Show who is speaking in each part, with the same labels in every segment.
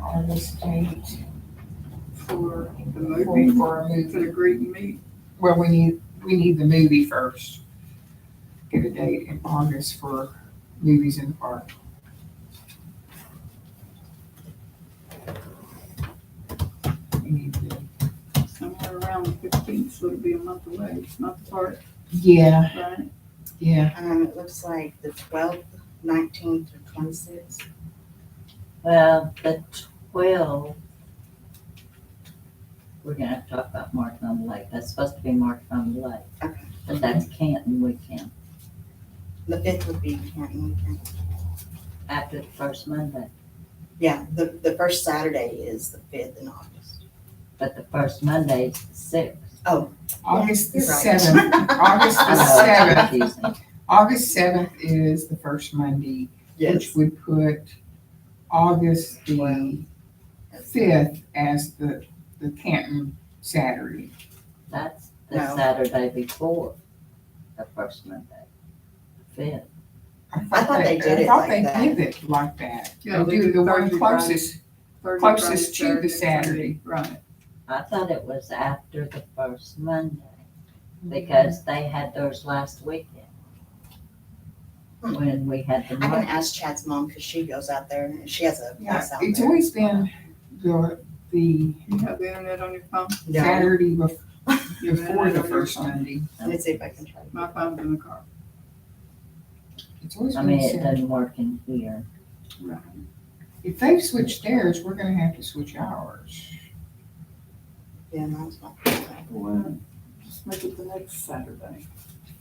Speaker 1: on this date for,
Speaker 2: The
Speaker 1: for,
Speaker 2: movie,
Speaker 1: for a movie.
Speaker 2: for the greet and meet.
Speaker 1: Well, we need, we need the movie first. Get a date in August for movies in the park. We need to,
Speaker 2: somewhere around the fifteenth, so it'll be a month away. It's not the park,
Speaker 1: yeah,
Speaker 2: right?
Speaker 1: yeah,
Speaker 3: Um, it looks like the twelfth, nineteenth, or twenty-sixth.
Speaker 4: Well, the twelve. We're gonna have to talk about Martin on the Lake. That's supposed to be Martin on the Lake.
Speaker 3: Okay.
Speaker 4: But that's Canton weekend,
Speaker 3: The fifth would be Canton Weekend.
Speaker 4: after the first Monday.
Speaker 3: Yeah, the, the first Saturday is the fifth in August.
Speaker 4: But the first Monday is the sixth.
Speaker 1: August the
Speaker 3: You're right.
Speaker 1: seventh, August
Speaker 3: Oh,
Speaker 4: I
Speaker 1: the
Speaker 4: know, it's
Speaker 1: seventh,
Speaker 4: confusing.
Speaker 1: August seventh is the first Monday, which
Speaker 3: Yes.
Speaker 1: would put August the fifth as the, the Canton Saturday.
Speaker 4: That's the
Speaker 3: No.
Speaker 4: Saturday before the first Monday, fifth.
Speaker 3: I thought they did it
Speaker 1: I thought
Speaker 3: like
Speaker 1: they
Speaker 3: that.
Speaker 1: did it like that.
Speaker 2: Yeah,
Speaker 1: They
Speaker 2: they
Speaker 1: do
Speaker 2: do
Speaker 1: the one
Speaker 2: Thursday,
Speaker 1: closest,
Speaker 2: Thursday,
Speaker 1: Closest
Speaker 2: Friday,
Speaker 1: to the
Speaker 2: Saturday, Sunday. Right.
Speaker 4: I thought it was after the first Monday because they had theirs last weekend.
Speaker 3: Hmm.
Speaker 4: When we had the
Speaker 3: I can
Speaker 4: Martin.
Speaker 3: ask Chad's mom, cause she goes out there and she has a
Speaker 1: yeah,
Speaker 3: place out
Speaker 1: it's
Speaker 3: there.
Speaker 1: always been the, the
Speaker 2: You have the internet on your phone?
Speaker 3: No,
Speaker 1: Saturday bef-
Speaker 2: You have
Speaker 1: before
Speaker 2: internet
Speaker 1: the
Speaker 2: on your
Speaker 1: first
Speaker 2: phone?
Speaker 1: Monday.
Speaker 3: let me see if I can try.
Speaker 2: My phone's in the car.
Speaker 1: It's always
Speaker 4: I
Speaker 1: been
Speaker 4: mean, it
Speaker 1: said,
Speaker 4: doesn't work in here.
Speaker 2: Right.
Speaker 1: if they've switched theirs, we're gonna have to switch ours.
Speaker 3: Yeah, mine's not.
Speaker 2: Well, just make it the next Saturday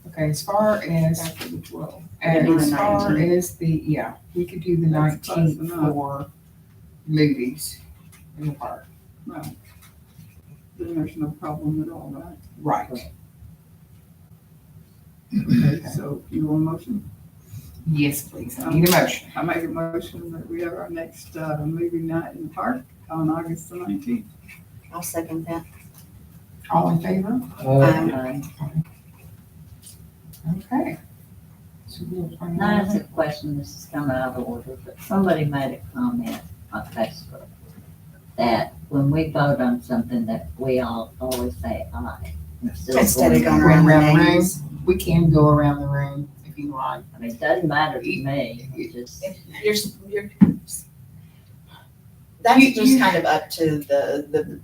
Speaker 1: Okay, as far as,
Speaker 2: after the twelfth.
Speaker 3: do the
Speaker 1: as far
Speaker 3: 19th.
Speaker 1: as the, yeah, we could do the
Speaker 2: That's close
Speaker 1: nineteenth
Speaker 2: enough.
Speaker 1: for movies in the park.
Speaker 2: Right. Then there's no problem at all, right?
Speaker 1: Right.
Speaker 2: Okay, so you want a motion?
Speaker 1: Yes, please. I need a motion.
Speaker 2: I make a motion that we have our next, uh, movie night in the park on August the nineteenth.
Speaker 3: I'll second that.
Speaker 1: All in favor?
Speaker 3: Um,
Speaker 4: Um,
Speaker 1: Okay. So we'll find
Speaker 4: Now,
Speaker 1: out.
Speaker 4: it's a question, this is kind of out of order, but somebody made a comment on Facebook that when we vote on something that we all always say aye. instead of
Speaker 3: Instead of
Speaker 4: going-
Speaker 3: going around
Speaker 1: Around
Speaker 3: the
Speaker 1: the
Speaker 3: names.
Speaker 1: We can go around the room if you like.
Speaker 4: I mean, it doesn't matter to me, it just,
Speaker 3: You're, you're. That's
Speaker 1: You-
Speaker 3: just
Speaker 1: you-
Speaker 3: kind of up to the, the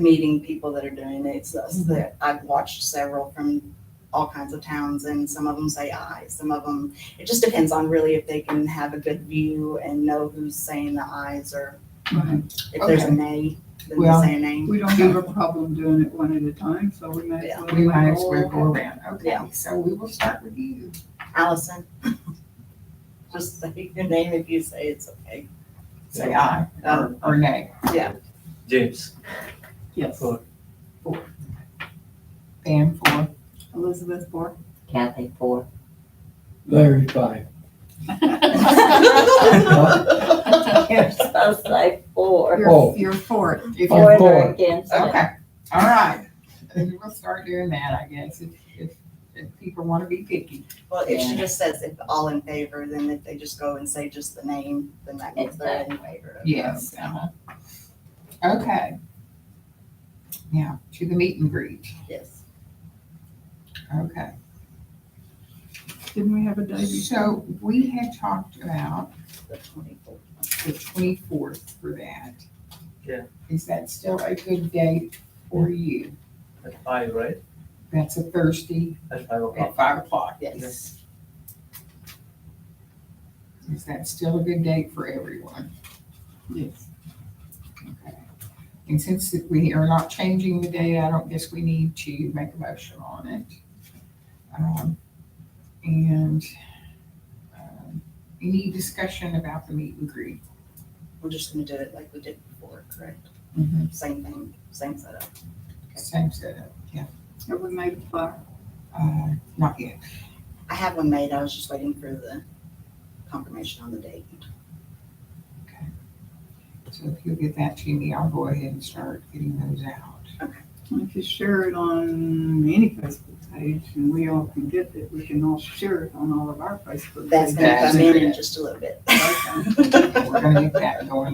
Speaker 3: meeting people that are doing it. It's us that, I've watched several from all kinds of towns and some of them say aye, some of them, it just depends on really if they can have a good view and know who's saying the ayes or if there's a
Speaker 1: Okay.
Speaker 3: nay, then
Speaker 1: Well,
Speaker 3: they say a nay.
Speaker 2: We don't have a problem doing it one at a time, so we may as well.
Speaker 1: We might as well go around. Okay,
Speaker 3: Yeah.
Speaker 1: so we will start with you.
Speaker 3: Allison, just say your name if you say it's okay.
Speaker 1: Say aye or, or nay.
Speaker 5: James.
Speaker 2: Yes.
Speaker 1: Pam for.
Speaker 2: Elizabeth Bork.
Speaker 4: Kathy for,
Speaker 5: Larry five.
Speaker 3: Oh.
Speaker 4: you're supposed to say for.
Speaker 5: Oh.
Speaker 1: You're for it. If you're,
Speaker 4: For
Speaker 5: Oh.
Speaker 4: it or
Speaker 5: for.
Speaker 4: against it.
Speaker 1: okay, all right. Then we'll start doing that, I guess, if, if, if people want to be picky.
Speaker 3: Well, if
Speaker 4: Yeah.
Speaker 3: she just says if all in favor, then if they just go and say just the name, then that means they're in favor. of it.
Speaker 1: Yes. uh-huh. Okay. Now, to the meet and greet.
Speaker 3: Yes.
Speaker 1: Okay.
Speaker 2: Didn't we have a day before?
Speaker 1: So we had talked about
Speaker 3: The twenty-fourth.
Speaker 1: the twenty-fourth for that.
Speaker 5: Yeah.
Speaker 1: Is that still a good date for you?
Speaker 5: At five, right?
Speaker 1: That's a Thursday
Speaker 5: At five
Speaker 1: at
Speaker 5: o'clock.
Speaker 1: five o'clock.
Speaker 3: Yes.
Speaker 1: Is that still a good date for everyone?
Speaker 2: Yes.
Speaker 1: Okay. And since that we are not changing the date, I don't guess we need to make a motion on it. Um, And um, any discussion about the meet and greet?
Speaker 3: We're just gonna do it like we did before, correct? Same thing, same setup.
Speaker 1: Same setup, yeah.
Speaker 2: Have we made a flyer?
Speaker 1: Uh, Not yet.
Speaker 3: I have one made, I was just waiting for the confirmation on the date.
Speaker 1: So if you'll get that to me, I'll go ahead and start getting those out.
Speaker 2: If you share it on any Facebook page and we all can get it, we can all share it on all of our Facebook.
Speaker 3: That's
Speaker 2: pages.
Speaker 3: gonna come in in just a little bit.
Speaker 2: Okay.
Speaker 1: We're gonna get that going